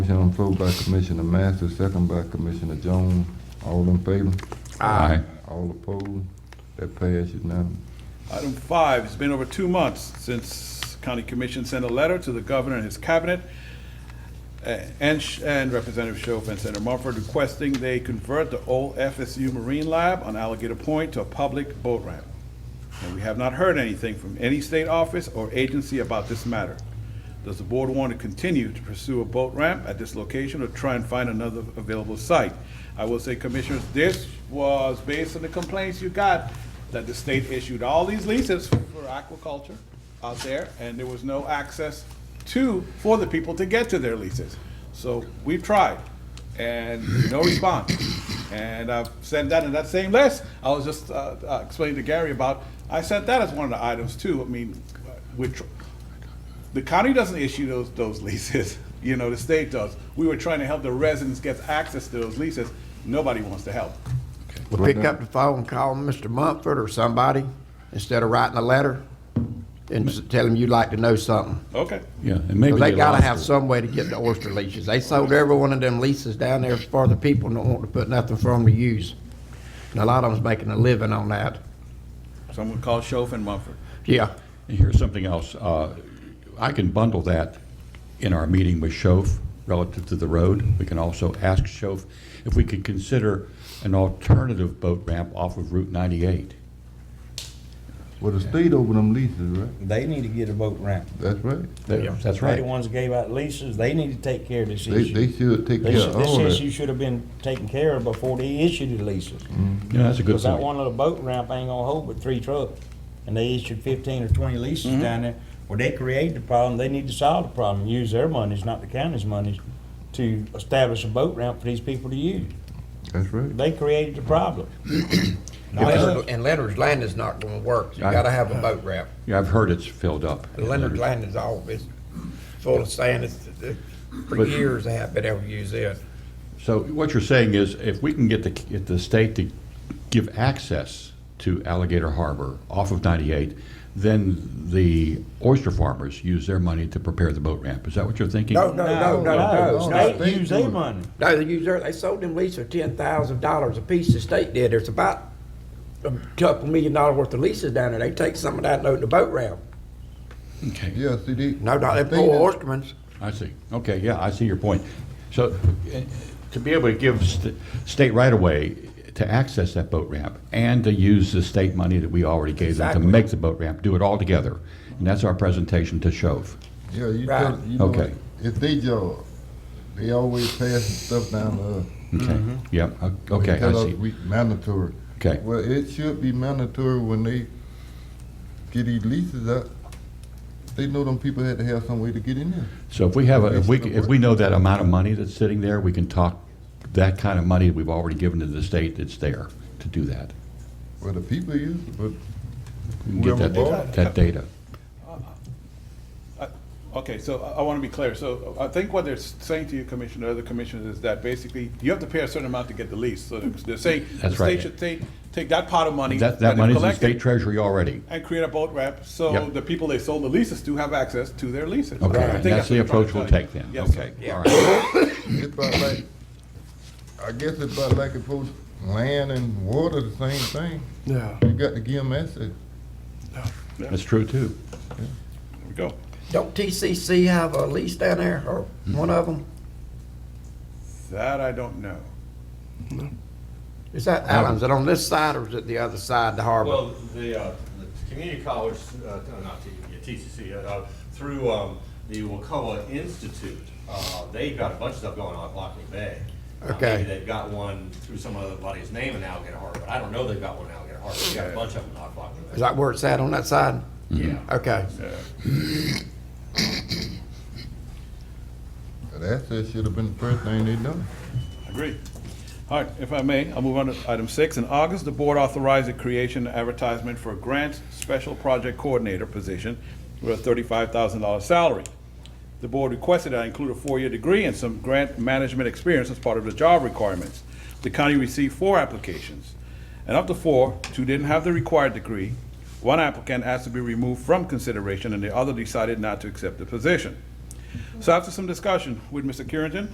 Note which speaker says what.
Speaker 1: Motion on the floor by Commissioner Masters, second by Commissioner Jones. All in favor?
Speaker 2: Aye.
Speaker 1: All opposed? That passes unanimous.
Speaker 3: Item five, it's been over two months since County Commission sent a letter to the governor and his cabinet uh, and Sh- and Representative Schoaf and Senator Mumford requesting they convert the old FSU Marine Lab on Alligator Point to a public boat ramp. And we have not heard anything from any state office or agency about this matter. Does the board want to continue to pursue a boat ramp at this location or try and find another available site? I will say, Commissioners, this was based on the complaints you got, that the state issued all these leases for aquaculture out there, and there was no access to, for the people to get to their leases. So we've tried and no response. And I've sent that in that same list. I was just uh, uh, explaining to Gary about, I sent that as one of the items too. I mean, which, the county doesn't issue those, those leases, you know, the state does. We were trying to help the residents get access to those leases. Nobody wants to help.
Speaker 4: Well, pick up the phone, call Mr. Mumford or somebody, instead of writing a letter, and s- tell him you'd like to know something.
Speaker 3: Okay,
Speaker 2: Yeah, and maybe.
Speaker 4: 'Cause they gotta
Speaker 2: lost
Speaker 4: have
Speaker 2: it.
Speaker 4: some way to get the oyster leases. They sold every one of them leases down there for the people don't want to put nothing for them to use. And a lot of them's making a living on that.
Speaker 3: someone called Schoaf and Mumford.
Speaker 4: Yeah.
Speaker 2: And Here's something else. Uh, I can bundle that in our meeting with Schoaf relative to the road. We can also ask Schoaf if we could consider an alternative boat ramp off of Route 98.
Speaker 1: Well, the state over them leases, right?
Speaker 5: They need to get a boat ramp.
Speaker 1: That's right.
Speaker 2: That- That's
Speaker 5: They're the
Speaker 2: right.
Speaker 5: ones that gave out leases, they need to take care of this
Speaker 1: They,
Speaker 5: issue.
Speaker 1: they should take
Speaker 5: They
Speaker 1: care
Speaker 5: should-
Speaker 1: of all
Speaker 5: This issue
Speaker 1: that.
Speaker 5: should have been taken care of before they issued the leases.
Speaker 1: Mm-hmm.
Speaker 2: You know, that's a good
Speaker 5: Because that
Speaker 2: point.
Speaker 5: one little boat ramp ain't gonna hold but three trucks. And they issued fifteen or twenty leases
Speaker 4: Mm-hmm.
Speaker 5: down there. Well, they created the problem, they need to solve the problem, use their monies, not the county's monies, to establish a boat ramp for these people to use.
Speaker 1: That's right.
Speaker 5: They created the problem. Not us.
Speaker 4: Leonard- And Leonard's Landing's not gonna work. You
Speaker 2: Right.
Speaker 4: gotta have a boat ramp.
Speaker 2: Yeah, I've heard it's filled up.
Speaker 4: Leonard's Landing's all, it's full of sand. It's, it- for
Speaker 2: But-
Speaker 4: years they haven't been able to use it.
Speaker 2: So what you're saying is if we can get the, get the state to give access to Alligator Harbor off of 98, then the oyster farmers use their money to prepare the boat ramp. Is that what you're thinking?
Speaker 4: No, no, no, no, no. no.
Speaker 5: They use their money.
Speaker 4: No, they used their, they sold them leases for ten thousand dollars a piece, the state did, there's about a couple million dollar worth of leases down there, they take some of that and load the boat ramp.
Speaker 2: Okay.
Speaker 1: Yeah, see, they.
Speaker 4: No, no,
Speaker 1: the
Speaker 4: they
Speaker 1: thing
Speaker 4: poor
Speaker 1: is-
Speaker 4: oystermans.
Speaker 2: I see. Okay, yeah, I see your point. So uh, to be able to give st- state right-of-way to access that boat ramp and to use the state money that we already gave them to
Speaker 4: Exactly.
Speaker 2: make the boat ramp, do it all together. And that's our presentation to Shove.
Speaker 1: Yeah, you
Speaker 4: Right.
Speaker 1: tell, you know,
Speaker 2: Okay.
Speaker 1: it's their job. They always passing stuff down to us.
Speaker 2: Okay, yep, o-
Speaker 1: They
Speaker 2: okay, I
Speaker 1: tell us
Speaker 2: see.
Speaker 1: We mandatory.
Speaker 2: Okay.
Speaker 1: Well, it should be mandatory when they get these leases up. They know them people had to have some way to get in there.
Speaker 2: So if we have, a if we, if we know that amount of money that's sitting there, we can talk that kind of money we've already given to the state that's there to do that.
Speaker 1: Well, the people use it, but
Speaker 2: We can Get that,
Speaker 1: Whoever
Speaker 2: da- that data.
Speaker 3: Okay, so I want to be clear. So I think what they're saying to you, Commissioner, other commissioners, is that basically you have to pay a certain amount to get the lease. So they're saying the
Speaker 2: That's right.
Speaker 3: state should take, take that pot of money.
Speaker 2: That,
Speaker 3: it
Speaker 2: that money's in the
Speaker 3: collected
Speaker 2: state treasury already.
Speaker 3: And create a boat ramp, so
Speaker 2: Yep.
Speaker 3: the people they sold the leases to have access to their leases.
Speaker 2: Okay,
Speaker 3: I think what
Speaker 2: and that's the
Speaker 3: they're trying to
Speaker 2: approach we'll
Speaker 3: tell you.
Speaker 2: take then.
Speaker 3: Yes, sir.
Speaker 2: Okay, all right.
Speaker 1: it's about like, I guess it's about like if both land and water the same thing.
Speaker 6: Yeah.
Speaker 1: You got to give them access.
Speaker 2: That's true, too.
Speaker 3: There we go.
Speaker 4: Don't TCC have a lease down there, or one of them?
Speaker 3: That I don't know.
Speaker 4: Is that Allen's, is it on this side or is it the other side of the harbor?
Speaker 7: Well, the, uh, the community college, uh, not T- yeah, TCC, uh, uh, through, um, the Wacoa Institute, uh, they've got a bunch of stuff going on at Lockley Bay. Uh,
Speaker 4: Okay.
Speaker 7: Maybe they've got one through some other body's name in Alligator Harbor, but I don't know they've got one in Alligator Harbor, they've got a bunch of them at Lockley
Speaker 4: Is
Speaker 7: Bay.
Speaker 4: that where it's at, on that side?
Speaker 7: Yeah.
Speaker 4: Okay.
Speaker 3: Uh,
Speaker 1: That access should have been the first thing they done.
Speaker 3: Agreed. All right, if I may, I'll move on to item six. In August, the board authorized the creation and advertisement for a grants special project coordinator position with a thirty-five thousand dollar salary. The board requested I include a four-year degree and some grant management experience as part of the job requirements. The county received four applications, and of the four, two didn't have the required degree. One applicant asked to be removed from consideration, and the other decided not to accept the position. So after some discussion with Mr. Currington